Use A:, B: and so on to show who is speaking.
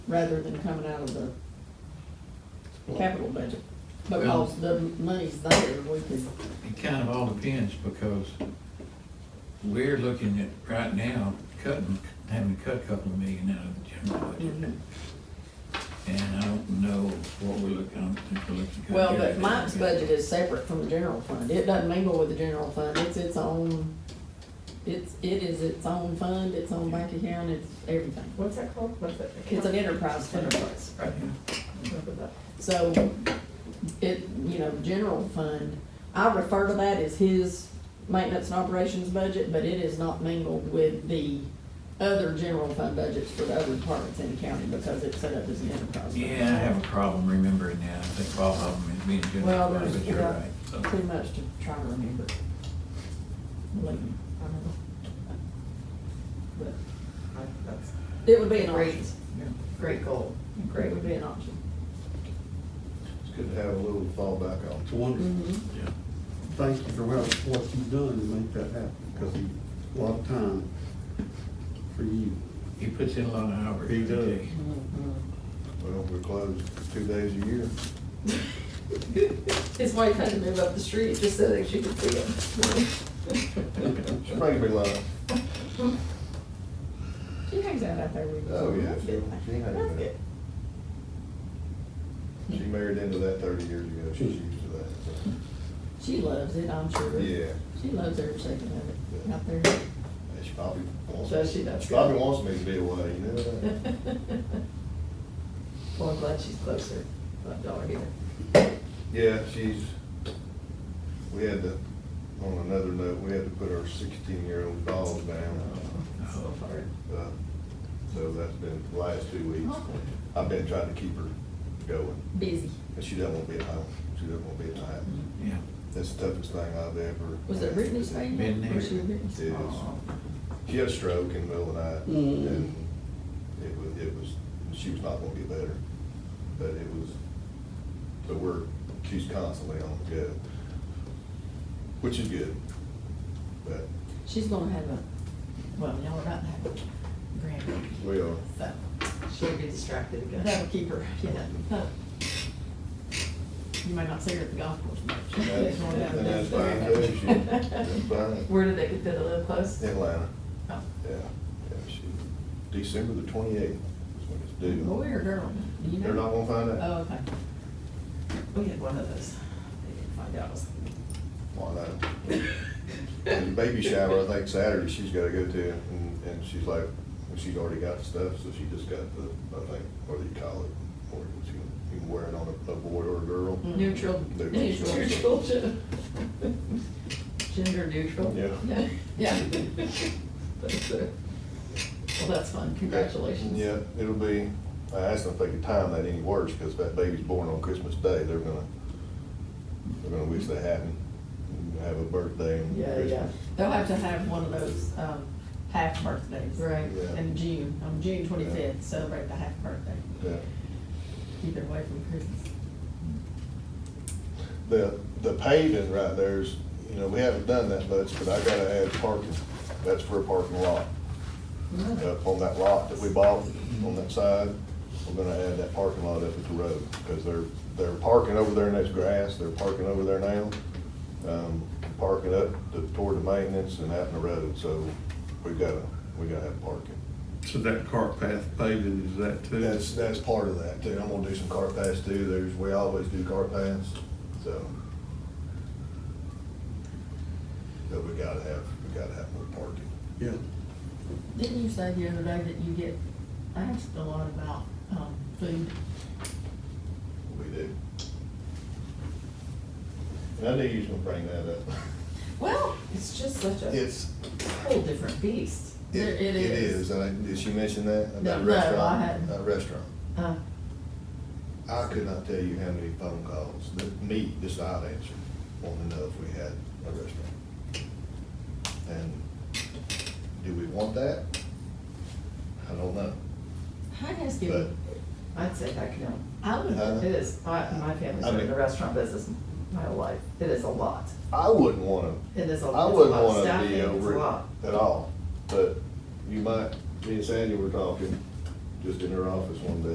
A: rather than coming out of the capital budget. Because the money's there, we could,
B: It kind of all depends, because we're looking at, right now, cutting, having to cut a couple of million out of the general budget.
A: Mhm. Mm-hmm.
B: And I don't know what we're looking, if we're looking. to
A: well,
B: cut
A: but
B: everything
A: Mike's
B: together.
A: budget is separate from the general fund. It doesn't mingle with the general fund. It's its own, it's, it is its own fund, its own bank account, it's everything.
C: What's that called? What's that?
A: It's an enterprise fund.
C: Enterprise, right. Remember that.
A: So it, you know, general fund, I refer to that as his maintenance and operations budget, but it is not mingled with the other general fund budgets for the other departments in the county because it's set up as an enterprise. fund.
B: Yeah, I have a problem remembering that. I think all of them is being general,
A: Well,
B: but
A: there's,
B: you're
A: yeah,
B: right. so.
A: too much to try to remember. Believe me, I don't know. But
C: I- That's
A: It would be an option.
B: Yeah.
C: great goal.
A: It would be an option.
D: It's good to have a little fallback on.
E: It's wonderful.
C: Mm-hmm.
A: Mhm.
E: Thank you for what, what you've done to make that happen, because a lot of time for you.
B: He puts in a lot of hours.
E: He
B: I tell
E: does.
B: you.
D: Well, we're closed two days a year.
C: His wife had to move up the street just so that she could see him.
D: She brings me love.
A: She hangs out out there with you.
D: Oh, yeah,
A: That's
D: she,
A: good.
D: she
C: That's
D: had that.
C: good.
D: She married into that thirty years ago. She's used to that. so.
A: She loves it, I'm sure.
D: Yeah.
A: She loves every second of it out there.
D: And she probably
C: So
D: wants,
C: she does.
D: probably wants me to be away, you know that?
C: Well, I'm glad she's closer. Glad y'all are here.
D: Yeah, she's, we had to, on another note, we had to put our sixteen-year-old dog down.
C: So hard.
D: Uh, So that's been the last two weeks. I've been trying to keep her going,
A: Busy.
D: and she doesn't want to be at home. She doesn't want to be at the house.
B: Yeah.
D: That's the toughest thing I've ever.
A: Was it Brittany's baby?
B: Been there.
A: Was she Brittany's?
D: It is.
A: Aw.
D: She had a stroke in the middle of the night,
E: Mm.
D: and it was, it was, she was not gonna get better, but it was, but we're, she's constantly on the go, which is good, but
A: She's gonna have a, well, y'all are about to have a grandbaby,
D: we are.
A: so
C: She'll be distracted again.
A: that'll keep her, yeah. You may not see her at the golf course much.
D: That's- and that's fine, too. She- that's fine.
C: Where did they get that to live close?
D: Atlanta,
C: Oh.
D: yeah, yeah, she, December the twenty-eighth is when it's
A: Boy
D: due.
A: or girl? Oh, Do you know?
D: They're not gonna find out.
A: Oh, okay.
C: We had one of those. They didn't find out.
D: Well, no. And the baby shower, I think Saturday, she's gotta go to, and, and she's like, well, she's already got the stuff, so she just got the, I think, or the collar, or she can, you can wear it on a, a boy or a girl.
A: Mm-hmm. Mm.
C: Neutral.
D: Neutral.
C: Neutral. Gender neutral.
D: Yeah.
C: Yeah. Yeah. That's it. Well, that's fun. Congratulations.
D: Yeah, it'll be, I asked them if they could time that any worse, because that baby's born on Christmas Day, they're gonna, they're gonna wish they hadn't, and have a birthday and
C: Yeah, yeah.
D: Christmas.
A: They'll have to have one of those, um, half birthdays.
C: Right.
D: Yeah.
A: In June, on June twenty-fifth, celebrate the half birthday,
D: Yeah.
A: keep it away from Christmas.
D: The, the paving right there is, you know, we haven't done that much, but I gotta add parking, that's for a parking lot. Up on that lot that we bought on that side, we're gonna add that parking lot up at the road, because they're, they're parking over there and there's grass, they're parking over there now. Um, parking up to- toward the maintenance and out in the road, so we gotta, we gotta have parking.
E: So that cart path paving, is that too?
D: That's, that's part of that too, I'm gonna do some car paths too, there's, we always do car paths, so. But we gotta have, we gotta have more parking.
E: Yeah.
A: Didn't you say the other day that you get asked a lot about, um, food?
D: We do. And I knew you was gonna bring that up.
C: Well, it's just such a
D: It's,
C: whole different beast.
D: it
A: There- it
D: it
A: is.
D: is, and I, did she mention that?
A: No,
D: about
A: no, I
D: restaurant?
A: hadn't.
D: About restaurant.
C: Uh,
D: I could not tell you how many phone calls that me, just I'd answer, wanting to know if we had a restaurant. And do we want that? I don't know,
A: I asked
D: but,
A: you,
C: I'd say heck no.
A: I would,
D: Huh?
C: It is, my, my family's
D: I
C: been in
D: mean-
C: the restaurant business my whole life. It is a lot.
D: I wouldn't wanna,
C: It is a, it's a
D: I
C: lot
D: wouldn't
C: of
D: wanna
C: staffing,
D: be
C: it's a
D: over
C: lot.
D: it at all, but you might, me and Sandy were talking, just in her office one day,